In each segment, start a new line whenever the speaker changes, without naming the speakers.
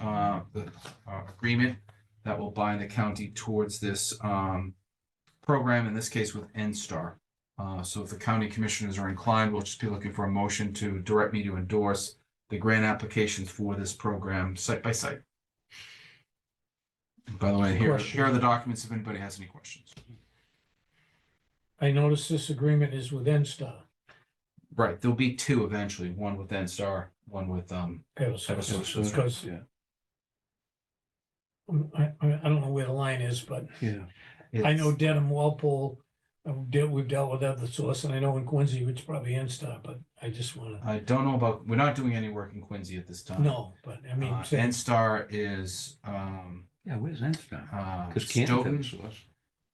uh, the uh, agreement that will bind the county towards this um, program, in this case with NSTAR. Uh, So if the county commissioners are inclined, we'll just be looking for a motion to direct me to endorse the grant applications for this program site by site. By the way, here,
Question.
here are the documents if anybody has any questions.
I notice this agreement is with Enstar.
Right, there'll be two eventually, one with NSTAR, one with, um, Eversource, that's
Because um,
Yeah,
I, I, I don't know where the line is, but
yeah.
I know
it's-
Dedham Walpole, I've dealt, we've dealt with other source, and I know in Quincy, it's probably Enstar, but I just wanna,
I don't know about, we're not doing any work in Quincy at this time.
no, but I mean,
Uh,
say-
NSTAR is, um,
Yeah, where's that stuff?
uh,
Because Canton's
Stoughton,
Eversource.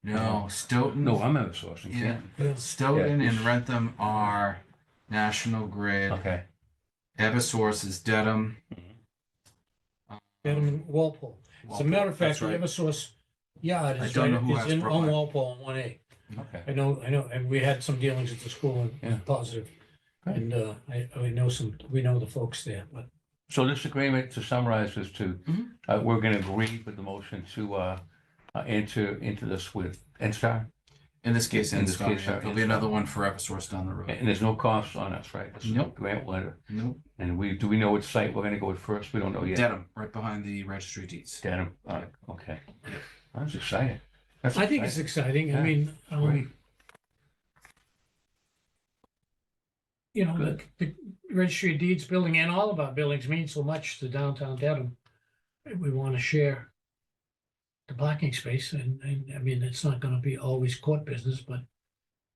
no, Stoughton.
No, I'm Eversource in
Yeah.
Canton.
yeah,
Stoughton
Yeah.
and Rentham are National Grid,
Okay.
Eversource is Dedham.
Dedham and Walpole. As a matter of fact, the Eversource Yard
I
is
don't
right,
know who
is
has
in, on
Brookline.
Walpole on one A.
Okay.
I know, I know, and we had some dealings at the school and
Yeah.
it's positive.
Great.
And, uh, I, I know some, we know the folks there, but
So this agreement, to summarize this to,
Mhm.
uh, we're going to agree with the motion to, uh, uh, enter into this with NSTAR?
In this case,
In this
NSTAR,
case,
yeah.
uh,
there'll be
NSTAR.
another one for Eversource down the road.
And there's no cost on us, right? This is a
Nope.
Grant letter.
No,
And we, do we know which site we're going to go with first? We don't know yet.
Dedham, right behind the registry deeds.
Dedham. all right, Okay. That's exciting. That's
I think it's
exciting.
exciting. I
Yeah.
mean, um,
Great.
you know, the,
Good.
the registry of deeds building and all of our buildings mean so much to downtown Dedham. We want to share the parking space and, and I mean, it's not going to be always court business, but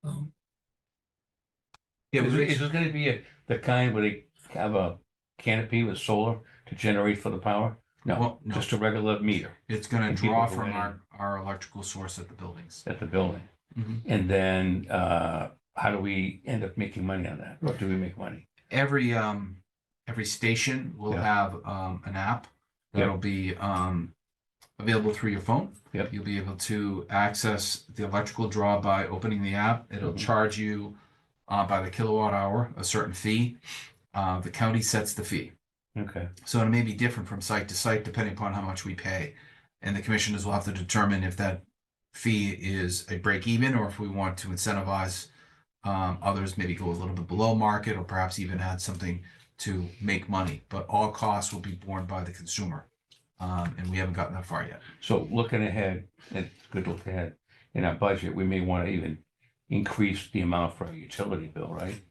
um,
Yeah,
Is
we-
it- is this gonna be a- the kind where they have a canopy with solar to generate for the power? No,
Well, no.
just a regular meter
it's gonna
and people
draw
go
from
in.
our, our electrical source at the buildings.
at the building.
Mhm.
And then, uh, how do we end up making money on that? Or do we make money?
Every, um, every station will
Yeah.
have, um, an app
Yeah.
that'll be, um, available through your phone.
Yep.
You'll be able to access the electrical draw by opening the app. It'll
Mhm.
charge you uh, by the kilowatt hour a certain fee. Uh, the county sets the fee,
Okay,
so it may be different from site to site depending upon how much we pay, and the commissioners will have to determine if that fee is a break even or if we want to incentivize um, others maybe go a little bit below market or perhaps even add something to make money. But all costs will be borne by the consumer, um, and we haven't gotten that far yet.
so looking ahead, it's good to look ahead. In our budget, we may wanna even increase the amount for our utility bill, right?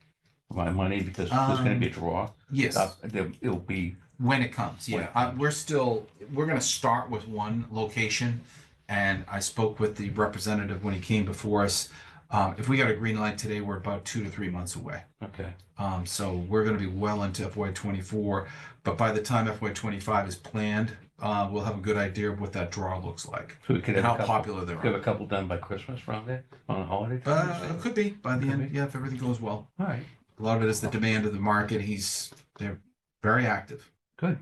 My money, because there's gonna be a draw.
Um, Yes.
Uh, there- It'll be,
When it comes,
When
yeah.
it
Uh, we're still, we're gonna start with one location. And I spoke with the representative when he came before us. Um, if we got a green light today, we're about two to three months away.
okay,
Um, so we're gonna be well into FY twenty-four, but by the time FY twenty-five is planned, uh, we'll have a good idea of what that draw looks like
so we could
and
have
how
a couple,
popular they
could have
are.
a couple done by Christmas around there, on a holiday.
But it could be by the
Could
end,
be.
yeah, if everything goes well.
All right,
A lot of it is the demand of the market. He's, they're very active.
good.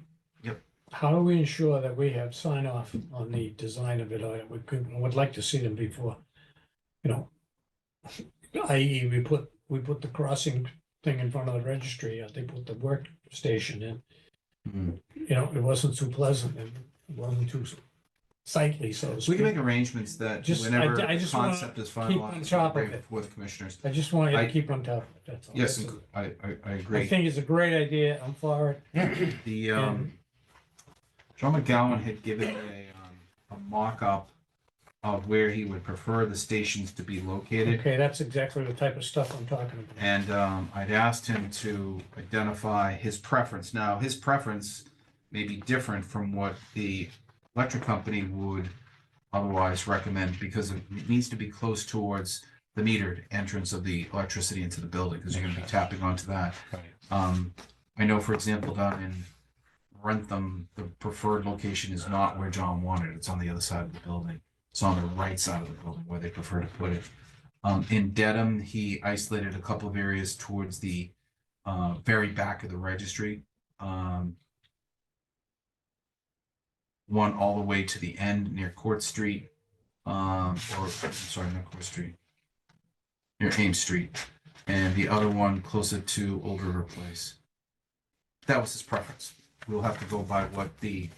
how do we ensure that we have sign off on the design of it? I would, could- would like to see them before, you know. I.e., we put, we put the crossing thing in front of the registry, uh, they put the workstation in.
Hmm.
You know, it wasn't too pleasant and it wasn't too sightly, so to
We can
speak.
make arrangements that
Just- I-
whenever
I just wanna
concept is
on
finalized,
top of
bring
it.
with commissioners.
I just want you
I-
to keep on top of it, that's all.
Yes,
That's
and
all.
I, I, I
I
agree.
think it's a great idea, I'm for it.
The, um, John McGowan had given a, um, a mock-up of where he would prefer the stations to be located.
Okay, that's exactly the type of stuff I'm talking about.
And, um, I'd asked him to identify his preference. Now, his preference may be different from what the electric company would otherwise recommend because it needs to be close towards the metered entrance of the electricity into the building, because you're gonna be
Makes
tapping onto that.
Right.
Um, I know, for example, down in Rentham, the preferred location is not where John wanted. It's on the other side of the building. It's on the right side of the building where they prefer to put it. Um, in Dedham, he isolated a couple of areas towards the, uh, very back of the registry. Um, one all the way to the end near Court Street, um, or, I'm sorry, not Court Street. Near Ames Street and the other one closer to Old River Place. That was his preference. we'll have to go by what the